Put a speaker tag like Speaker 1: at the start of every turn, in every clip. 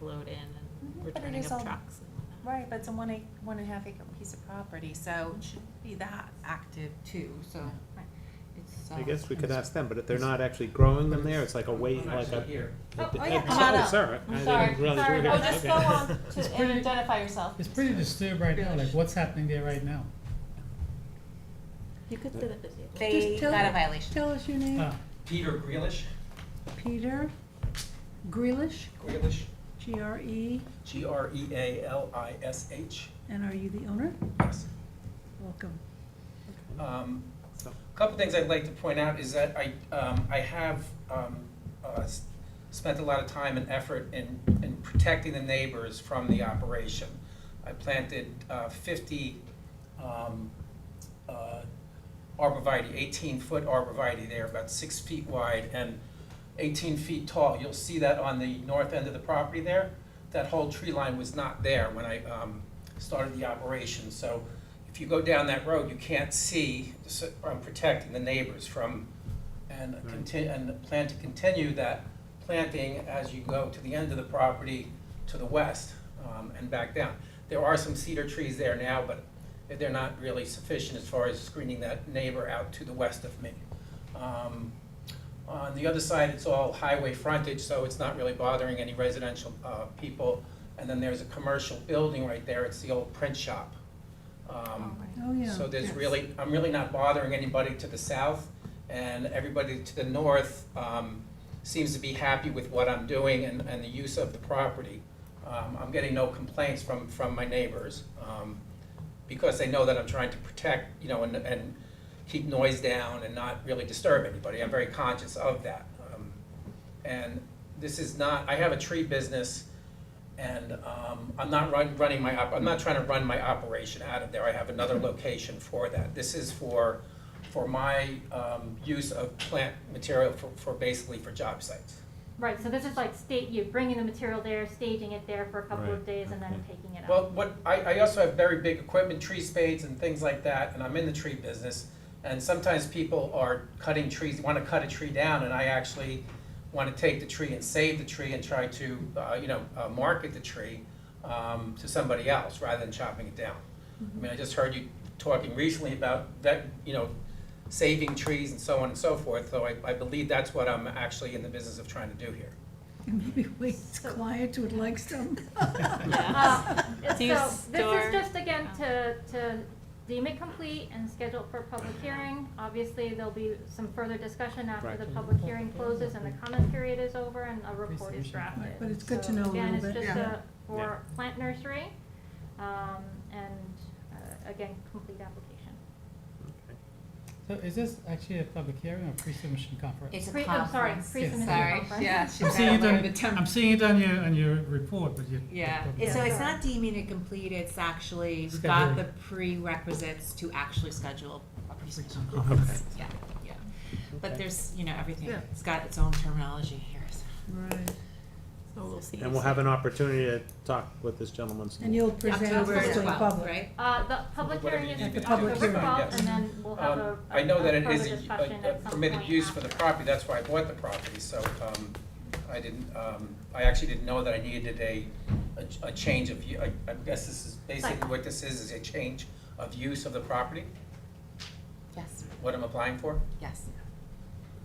Speaker 1: load in and
Speaker 2: Mhm, but it
Speaker 1: returning
Speaker 2: is
Speaker 1: of
Speaker 2: all-
Speaker 1: trucks and whatnot.
Speaker 2: Right, but it's a one ac one and a half acre piece of property, so it should be that active too, so it's.
Speaker 3: I
Speaker 2: uh,
Speaker 3: guess we could ask them, but if they're not actually growing them there, it's like a wait, like a.
Speaker 4: here.
Speaker 2: Oh, oh,
Speaker 3: a-
Speaker 2: yeah, come on
Speaker 3: oh,
Speaker 2: up.
Speaker 3: Sorry. I
Speaker 1: I'm
Speaker 3: didn't
Speaker 1: sorry,
Speaker 3: realize you
Speaker 1: sorry,
Speaker 3: were
Speaker 1: oh,
Speaker 3: here.
Speaker 1: just
Speaker 3: Okay.
Speaker 1: go on
Speaker 5: It's
Speaker 1: to, and
Speaker 5: pretty-
Speaker 1: identify yourself.
Speaker 5: It's pretty disturbed right now, like what's happening there right now.
Speaker 1: You could sit at the table.
Speaker 2: They
Speaker 6: Just tell
Speaker 2: got a
Speaker 6: it.
Speaker 2: violation.
Speaker 6: Tell us your name.
Speaker 5: Ah,
Speaker 4: Peter Grealish,
Speaker 6: Peter Grealish,
Speaker 4: Grealish,
Speaker 6: G-R-E,
Speaker 4: G R E A L I S H.
Speaker 6: and are you the owner?
Speaker 4: Yes.
Speaker 6: Welcome.
Speaker 4: Um,
Speaker 3: So-
Speaker 4: A Couple things I'd like to point out is that I, um, I have, um, uh, s- spent a lot of time and effort in, in protecting the neighbors from the operation. I planted, uh, fifty, um, uh, arborvitae, eighteen-foot arborvitae there, about six feet wide and eighteen feet tall. You'll see that on the north end of the property there. That whole tree line was not there when I, um, started the operation, so if you go down that road, you can't see, so I'm protecting the neighbors from, and continue, and plan to continue that planting as you go to the end of the property to the west, um, and back down. There are some cedar trees there now, but they're not really sufficient as far as screening that neighbor out to the west of me. Um, on the other side, it's all highway frontage, so it's not really bothering any residential, uh, people. And then there's a commercial building right there, it's the old print shop. Um,
Speaker 6: Oh, yeah.
Speaker 4: so there's
Speaker 2: Yes.
Speaker 4: really, I'm really not bothering anybody to the south, and everybody to the north um, seems to be happy with what I'm doing and, and the use of the property. Um, I'm getting no complaints from, from my neighbors, um, because they know that I'm trying to protect, you know, and, and keep noise down and not really disturb anybody. I'm very conscious of that. Um, And this is not, I have a tree business, and um, I'm not run- running my, op- I'm not trying to run my operation out of there. I have another location for that. This is for, for my um, use of plant material for, for basically for job sites.
Speaker 7: Right, so this is like state, you're bringing the material there, staging it there for a couple
Speaker 3: Right,
Speaker 7: of days and
Speaker 3: okay.
Speaker 7: then taking it out.
Speaker 4: Well, what, I, I also have very big equipment, tree spades and things like that, and I'm in the tree business. And sometimes people are cutting trees, want to cut a tree down, and I actually want to take the tree and save the tree and try to, uh, you know, uh, market the tree um, to somebody else rather than chopping it down. I mean, I just heard you talking recently about that, you know, saving trees and so on and so forth, so I, I believe that's what I'm actually in the business of trying to do here.
Speaker 6: Maybe Wade's clients would like some.
Speaker 1: Yeah.
Speaker 7: Uh,
Speaker 1: Do you
Speaker 7: So, this
Speaker 1: store- Oh.
Speaker 7: is just again to, to deem it complete and schedule for public hearing. Obviously, there'll be some further discussion after
Speaker 3: Right.
Speaker 7: the public hearing closes and the comment period is over and a report is
Speaker 5: Presentation.
Speaker 7: drafted.
Speaker 6: But it's good to
Speaker 7: So,
Speaker 6: know a
Speaker 7: again,
Speaker 6: little bit,
Speaker 7: it's just
Speaker 6: yeah.
Speaker 7: a, for plant nursery, um, and, uh, again, complete application.
Speaker 3: Okay.
Speaker 5: So is this actually a public hearing or pre-submission conference?
Speaker 2: It's a
Speaker 7: Pre- I'm sorry,
Speaker 2: conference.
Speaker 7: pre-submission
Speaker 2: Sorry,
Speaker 7: conference.
Speaker 2: yeah,
Speaker 5: I'm
Speaker 2: she's
Speaker 5: seeing
Speaker 2: got a
Speaker 5: it
Speaker 2: little
Speaker 5: on,
Speaker 2: bit
Speaker 5: I'm seeing it on your, on your report, but you.
Speaker 2: Yeah,
Speaker 5: but-
Speaker 2: it's- so it's
Speaker 7: Yeah.
Speaker 2: not deeming it complete, it's actually, we've got
Speaker 5: Scheduling.
Speaker 2: the prerequisites to actually schedule a pre-submission
Speaker 5: Okay.
Speaker 2: conference. Yeah, yeah. But
Speaker 3: Okay.
Speaker 2: there's, you know, everything,
Speaker 3: Yeah.
Speaker 2: it's got its own terminology here, so.
Speaker 6: Right.
Speaker 1: So we'll see.
Speaker 3: And we'll have an opportunity to talk with this gentleman. some
Speaker 6: And
Speaker 3: more.
Speaker 6: you'll present
Speaker 2: October
Speaker 6: this to the
Speaker 2: 12th,
Speaker 6: public.
Speaker 2: Right?
Speaker 7: Uh, the public
Speaker 4: Whatever
Speaker 7: hearing
Speaker 4: you
Speaker 7: is
Speaker 4: need
Speaker 6: to do.
Speaker 7: October
Speaker 6: Public hearing,
Speaker 7: twelfth,
Speaker 4: yes.
Speaker 7: and then we'll have a,
Speaker 4: Um,
Speaker 7: a
Speaker 4: I know that it
Speaker 7: a
Speaker 4: is
Speaker 7: further
Speaker 4: a-
Speaker 7: discussion
Speaker 4: a- a
Speaker 7: at some
Speaker 4: permitted
Speaker 7: point
Speaker 4: use for the
Speaker 7: after.
Speaker 4: property, that's why I bought the property, so um, I didn't, um, I actually didn't know that I needed a, a- a change of, u- I I guess this is basically
Speaker 7: Site.
Speaker 4: what this is, is a change of use of the property,
Speaker 2: Yes,
Speaker 4: what I'm applying for?
Speaker 2: yes.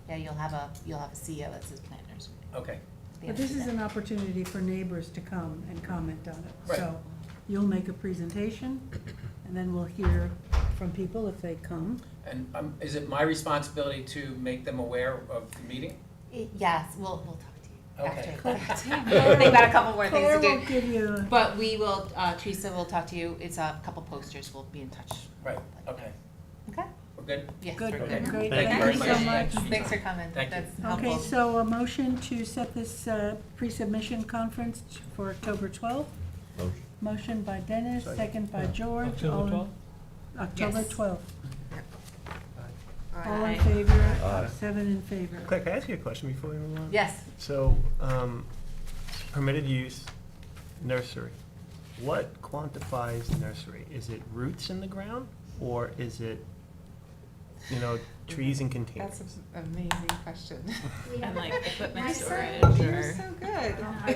Speaker 2: Yeah, you'll have a, you'll have a CEO that says plant nursery.
Speaker 4: Okay,
Speaker 6: But this is an opportunity for neighbors to come and comment on it.
Speaker 4: Right.
Speaker 6: So you'll make a presentation, and then we'll hear from people if they come.
Speaker 4: and um, is it my responsibility to make them aware of the meeting?
Speaker 2: Yes, we'll, we'll talk to you
Speaker 4: Okay.
Speaker 2: after. They've got a couple more things to
Speaker 6: Claire
Speaker 2: do.
Speaker 6: will give you a-
Speaker 2: But we will, uh, Teresa will talk to you, it's a couple posters, we'll be in touch.
Speaker 4: Right, okay,
Speaker 2: Okay?
Speaker 4: we're good?
Speaker 2: Yes.
Speaker 6: Good,
Speaker 2: we're
Speaker 4: Okay.
Speaker 6: good, great,
Speaker 3: Thank you
Speaker 6: thank you
Speaker 4: very
Speaker 6: so
Speaker 4: much.
Speaker 6: much.
Speaker 2: Thanks for coming,
Speaker 4: Thank you.
Speaker 2: that's helpful.
Speaker 6: Okay, so a motion to set this uh, pre-submission conference t- for October 12th? Motion by Dennis, second by George. all
Speaker 5: October
Speaker 6: in-
Speaker 5: twelfth?
Speaker 6: October
Speaker 2: Yes.
Speaker 6: 12th. All in
Speaker 2: Aye.
Speaker 6: favor, seven in favor.
Speaker 8: Claire, can I ask you a question before we move on?
Speaker 2: Yes,
Speaker 8: So, um, permitted use, nursery. What quantifies nursery? Is it roots in the ground, or is it, you know, trees in containers?
Speaker 2: that's an amazing question.
Speaker 1: And like equipment
Speaker 2: You're so-
Speaker 1: storage or.
Speaker 2: You're so good.